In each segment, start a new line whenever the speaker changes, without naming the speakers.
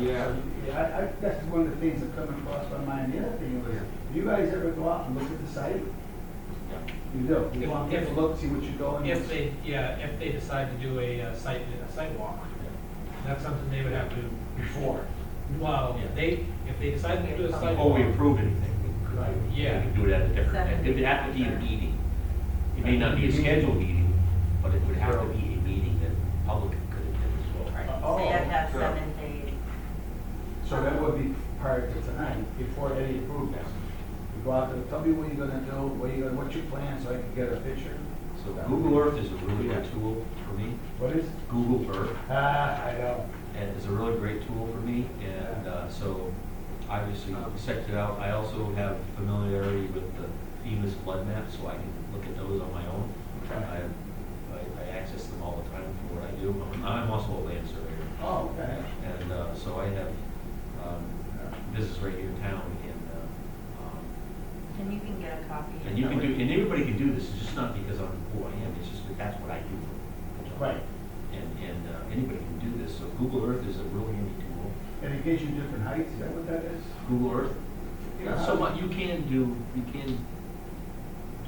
Yeah.
Yeah, I, I, that's one of the things that come across my mind. The other thing was, do you guys ever go out and look at the site? You do. You
If-
go out and take a
if-
look, see what you're going.
If they, yeah, if they decide to do a uh, site, a site walk, that's something they would have to do before. Well, they, if they decide to do a site
Before Oh,
walk.
we approve anything,
Right.
we
Yeah,
could do it at a different, it would have to be a meeting. It may not be a scheduled meeting, but it would have to be a meeting that the public could attend as
Right,
well.
so you have to have
Oh, okay.
seven days.
So that would be prior to tonight, before any approvals. You go out there, tell me what you're gonna do, what you, gonna- what's your plan, so I can get a picture.
So Google Earth is a really good tool for me,
What is?
Google Earth.
Ah, I know.
and it's a really great tool for me, and uh, so obviously checked it out. I also have familiarity with the FEMA's flood map, so I can look at those on my own. I,
Okay.
I- I access them all the time for what I do. I'm- I'm also a land surveyor,
Oh, okay.
and uh, so I have um, business right here in town, and, uh, um,
And you can get a copy.
and you can do, and everybody can do this, it's just not because I'm who I am, it's just that that's what I do.
Right.
And, and uh, anybody can do this, so Google Earth is a really handy tool.
And it gives you different heights, is that what that is?
Google Earth.
Yeah.
So what you can do, you can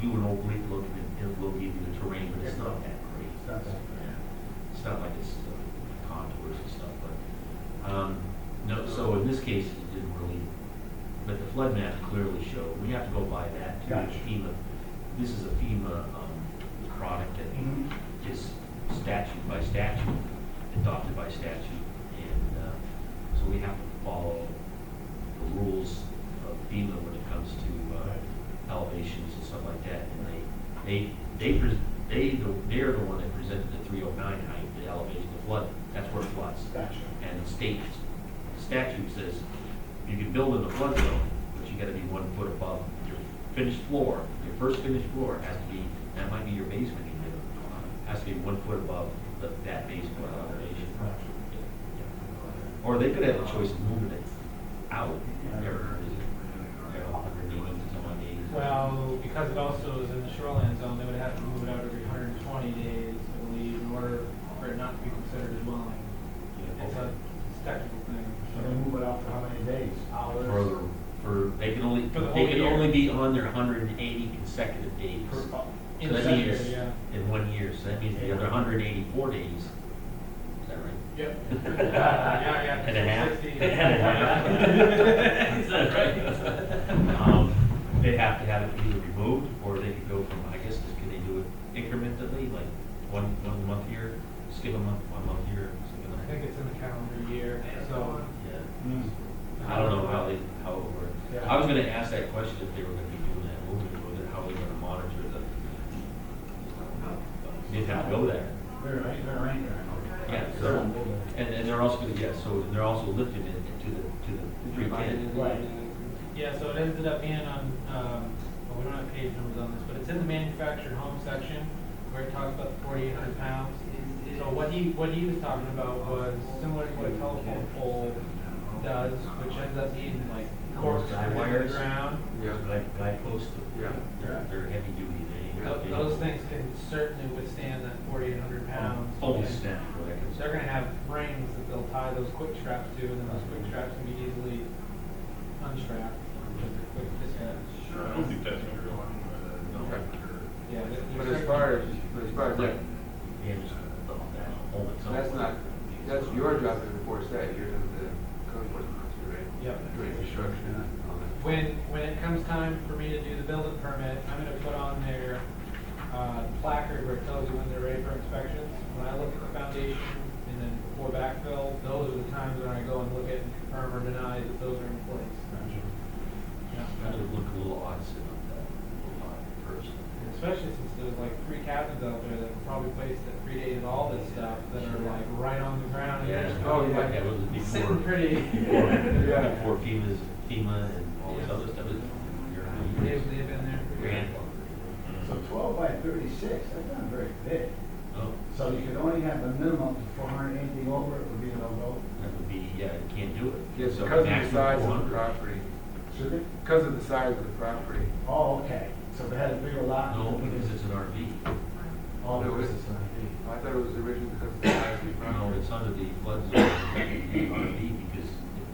do an oblique look and it will give you the terrain, but it's not that
It's
great.
not that-
It's not like it's uh, contours and stuff, but, um, no, so in this case, it didn't really, but the flood map clearly showed, we have to go by that too.
Gotcha.
FEMA, this is a FEMA, um, product that
Mhm.
is statute by statute, adopted by statute, and uh, so we have to follow the rules of FEMA when it comes to uh, elevations and stuff like that, and they, they, they, pres- they, the- they're the one that presented the three oh nine height, the elevation, the flood, that's where it floods.
Gotcha.
And the state statute says, you can build in the flood zone, but you gotta be one foot above your finished floor. Your first finished floor has to be, that might be your basement even, has to be one foot above the- that basement elevation. Or they could have a choice of moving it out, or, you know, underneath it, someone needs.
Well, because it also is in the shoreline zone, they would have to move it out every hundred and twenty days, I believe, in order for it not to be considered a dwelling. It's a it's a technical thing.
So they move it out for how many days? Hours?
Further, for, they can only,
For the
they
whole
can
year.
only be on their hundred and eighty consecutive days.
Per- oh,
So
In
that
the
means-
sector, yeah.
In one year, so that means the other hundred and eighty-four days, is that right?
Yep. Yeah, yeah.
And a half?
60.
And a half?
Is that right?
Um, They have to have it either removed, or they could go from, I guess, just can they do it incrementally, like one, one month here, skip a month, one month here, skip
I
another?
think it's in the calendar year, so.
Yeah,
mm.
I don't know how they, how it
Yeah.
works. I was gonna ask that question if they were gonna be doing that, moving, whether, how they're gonna monitor the, they'd have to go there.
They're right, they're right there.
Yeah,
They're
so,
on mobile.
and, and they're also, gonna yeah, so they're also lifted in, to the, to the three ten.
Yeah, so it ended up being on, um, well, we don't have page numbers on this, but it's in the manufactured home section where it talks about the forty-eight hundred pounds. So what he, what he was talking about was similar to what a telephone pole does, which ends up being like corks
Guy
in the
wires.
ground.
Yeah.
Guy, guy posts,
Yeah.
they're, they're heavy duty, they.
Tho-
they-
Those things can certainly withstand that forty-eight hundred
Um,
pounds.
Oh,
And
snap, right.
They're gonna have rings that they'll tie those quick straps to, and then those quick straps can be easily unstrapped. with the quick dispatch.
I don't think that's gonna go
Okay.
anywhere.
Yeah, they-
But as far as, but as far as that,
Yeah, just the- that hole itself.
that's not, that's your job to enforce that, you're the code enforcement officer, right?
Yep.
Doing construction and all that.
When, when it comes time for me to do the building permit, I'm gonna put on their, uh, placard where it tells you when they're ready for inspections. When I look at the foundation and then before backfill, those are the times when I go and look at and confirm or deny that those are in place. Yeah.
That would look a little odd sitting up that, odd person.
And Especially since there's like three cabins out there that were probably placed that predated all this stuff that are like right on the ground. and
Yeah,
just
oh,
like
yeah, that was before.
Sitting pretty.
Before
Yeah.
before FEMA's, FEMA and all this other stuff, it's,
They've,
you're,
they've been there. for
you're
years.
So twelve by thirty-six, that's not very big.
Oh.
So you could only have a minimum of four hundred, anything over it would be a no
That would be, yeah, you can't do it.
Yes,
So
because of the
maximum
size of the
400.
property,
vote. Should it?
because of the size of the property.
Oh, okay, so if it had a bigger lot.
No, because it's an RV.
Oh,
No,
no,
it's-
it's not big.
I thought it was originally because of the size of the
No,
property.
it's under the flood zone, it's an RV because